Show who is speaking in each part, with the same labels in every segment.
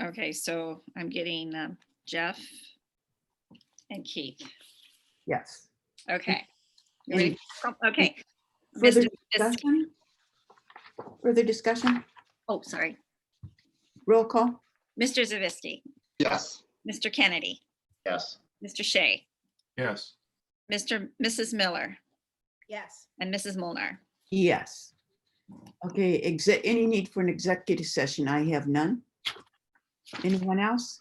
Speaker 1: Okay, so I'm getting um, Jeff and Keith.
Speaker 2: Yes.
Speaker 1: Okay. You
Speaker 2: And-
Speaker 1: ready? Oh,
Speaker 3: Mm-hmm.
Speaker 1: Okay. Mr.
Speaker 2: Further
Speaker 1: Fisk-
Speaker 2: discussion? Further discussion?
Speaker 1: Oh, sorry.
Speaker 2: Roll call?
Speaker 1: Mr. Zavisky,
Speaker 4: Yes.
Speaker 1: Mr. Kennedy,
Speaker 4: Yes.
Speaker 1: Mr. Shea,
Speaker 5: yes,
Speaker 1: Mr. Mrs. Miller,
Speaker 3: yes,
Speaker 1: and Mrs. Molnar.
Speaker 2: Yes. Okay, exec, any need for an executive session? I have none. Anyone else?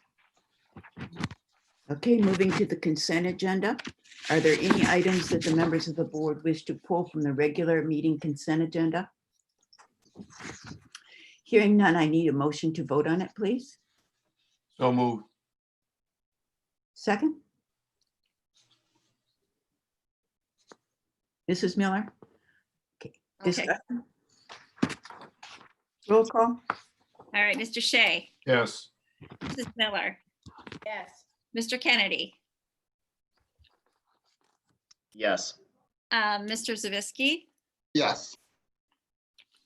Speaker 2: Okay, moving to the consent agenda. Are there any items that the members of the board wish to pull from the regular meeting consent agenda? Hearing none, I need a motion to vote on it, please.
Speaker 5: so moved,
Speaker 2: Second? Mrs. Miller?
Speaker 1: Okay,
Speaker 2: discuss- Roll call?
Speaker 1: all right, Mr. Shea,
Speaker 5: yes,
Speaker 1: Mrs. Miller,
Speaker 3: yes,
Speaker 1: Mr. Kennedy,
Speaker 4: Yes.
Speaker 1: uh, Mr. Zavisky,
Speaker 4: Yes.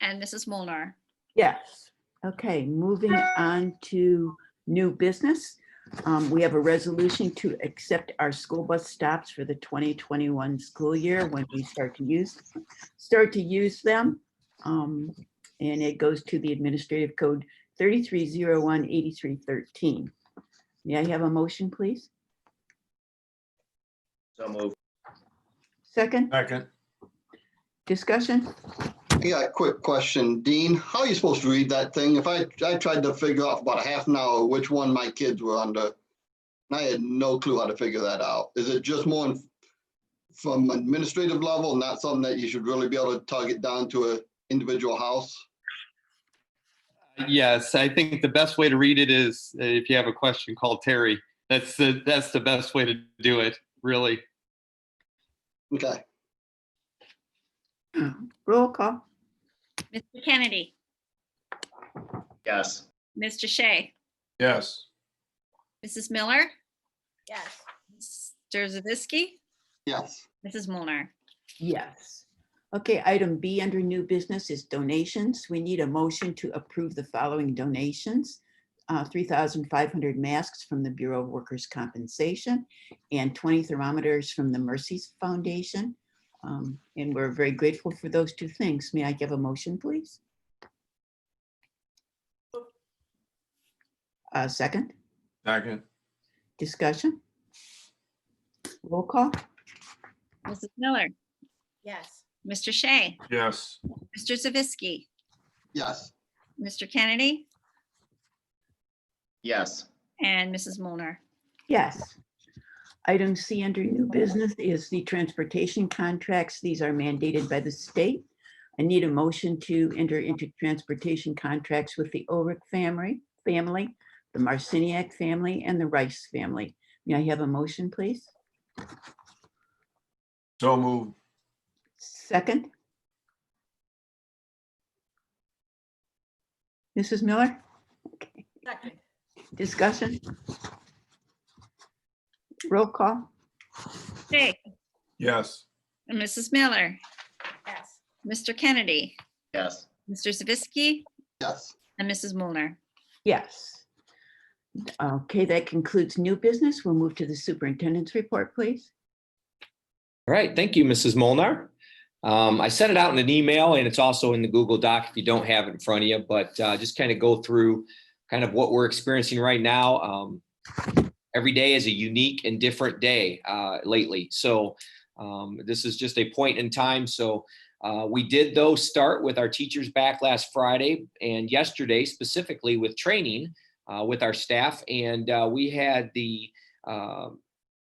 Speaker 1: and Mrs. Molnar.
Speaker 2: Yes. Okay, moving on to new business. Um, We have a resolution to accept our school bus stops for the 2021 school year when we start to use, start to use them. Um, And it goes to the administrative code 33018313. May I have a motion, please?
Speaker 4: So move.
Speaker 2: Second,
Speaker 5: second,
Speaker 2: discussion?
Speaker 6: Yeah, quick question. Dean, how are you supposed to read that thing? If I, I tried to figure out for about a half an hour which one my kids were under. And I had no clue how to figure that out. Is it just more in- from administrative level, not something that you should really be able to target down to a individual house?
Speaker 7: Yes, I think the best way to read it is uh, if you have a question, call Terry. That's the, that's the best way to do it, really.
Speaker 6: Okay,
Speaker 2: Roll call?
Speaker 1: Mr. Kennedy,
Speaker 4: Yes.
Speaker 1: Mr. Shea,
Speaker 5: yes,
Speaker 1: Mrs. Miller,
Speaker 3: yes,
Speaker 1: Mr. Zavisky,
Speaker 6: yes.
Speaker 1: Mrs. Molnar.
Speaker 2: Yes. Okay, item B under new business is donations. We need a motion to approve the following donations. Uh, 3,500 masks from the Bureau of Workers' Compensation and 20 thermometers from the Mercy's Foundation. Um, And we're very grateful for those two things. May I give a motion, please? A Uh, second,
Speaker 5: second,
Speaker 2: discussion? Roll call?
Speaker 1: Mrs. Miller,
Speaker 3: yes,
Speaker 1: Mr. Shea,
Speaker 5: yes,
Speaker 1: Mr. Zavisky,
Speaker 6: Yes,
Speaker 1: Mr. Kennedy,
Speaker 4: Yes.
Speaker 1: and Mrs. Molnar.
Speaker 2: Yes. Item C under new business is the transportation contracts. These are mandated by the state. I need a motion to enter into transportation contracts with the Ulrich family, family, the Marciniak family, and the Rice family. May I have a motion, please?
Speaker 5: so moved,
Speaker 2: Second? Mrs. Miller,
Speaker 3: second,
Speaker 2: discussion? Roll call?
Speaker 1: Shea,
Speaker 5: yes,
Speaker 1: and Mrs. Miller,
Speaker 3: yes,
Speaker 1: Mr. Kennedy,
Speaker 4: Yes.
Speaker 1: Mr. Zavisky,
Speaker 6: yes.
Speaker 1: and Mrs. Molnar.
Speaker 2: Yes. Okay, that concludes new business. We'll move to the superintendent's report, please.
Speaker 8: All right, thank you, Mrs. Molnar. Um, I sent it out in an email and it's also in the Google Doc if you don't have it in front of you, but uh, just kind of go through kind of what we're experiencing right now. Um, every day is a unique and different day uh, lately. So um, this is just a point in time. So uh, we did though start with our teachers back last Friday and yesterday specifically with training uh, with our staff. And uh, we had the um,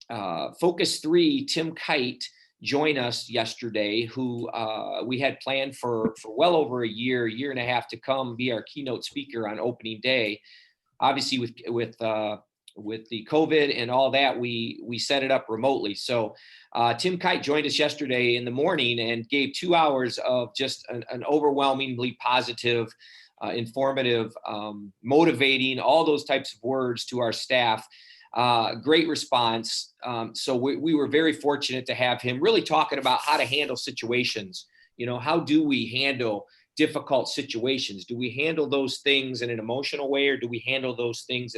Speaker 8: uh, Focus Three, Tim Kite joined us yesterday, who uh, we had planned for for well over a year, year and a half to come be our keynote speaker on opening day. Obviously, with with uh, with the COVID and all that, we we set it up remotely. So uh, Tim Kite joined us yesterday in the morning and gave two hours of just an, an overwhelmingly positive. Uh, informative, um, motivating, all those types of words to our staff uh, great response. Um, so we, we were very fortunate to have him really talking about how to handle situations. You know, how do we handle difficult situations? Do we handle those things in an emotional way or do we handle those things in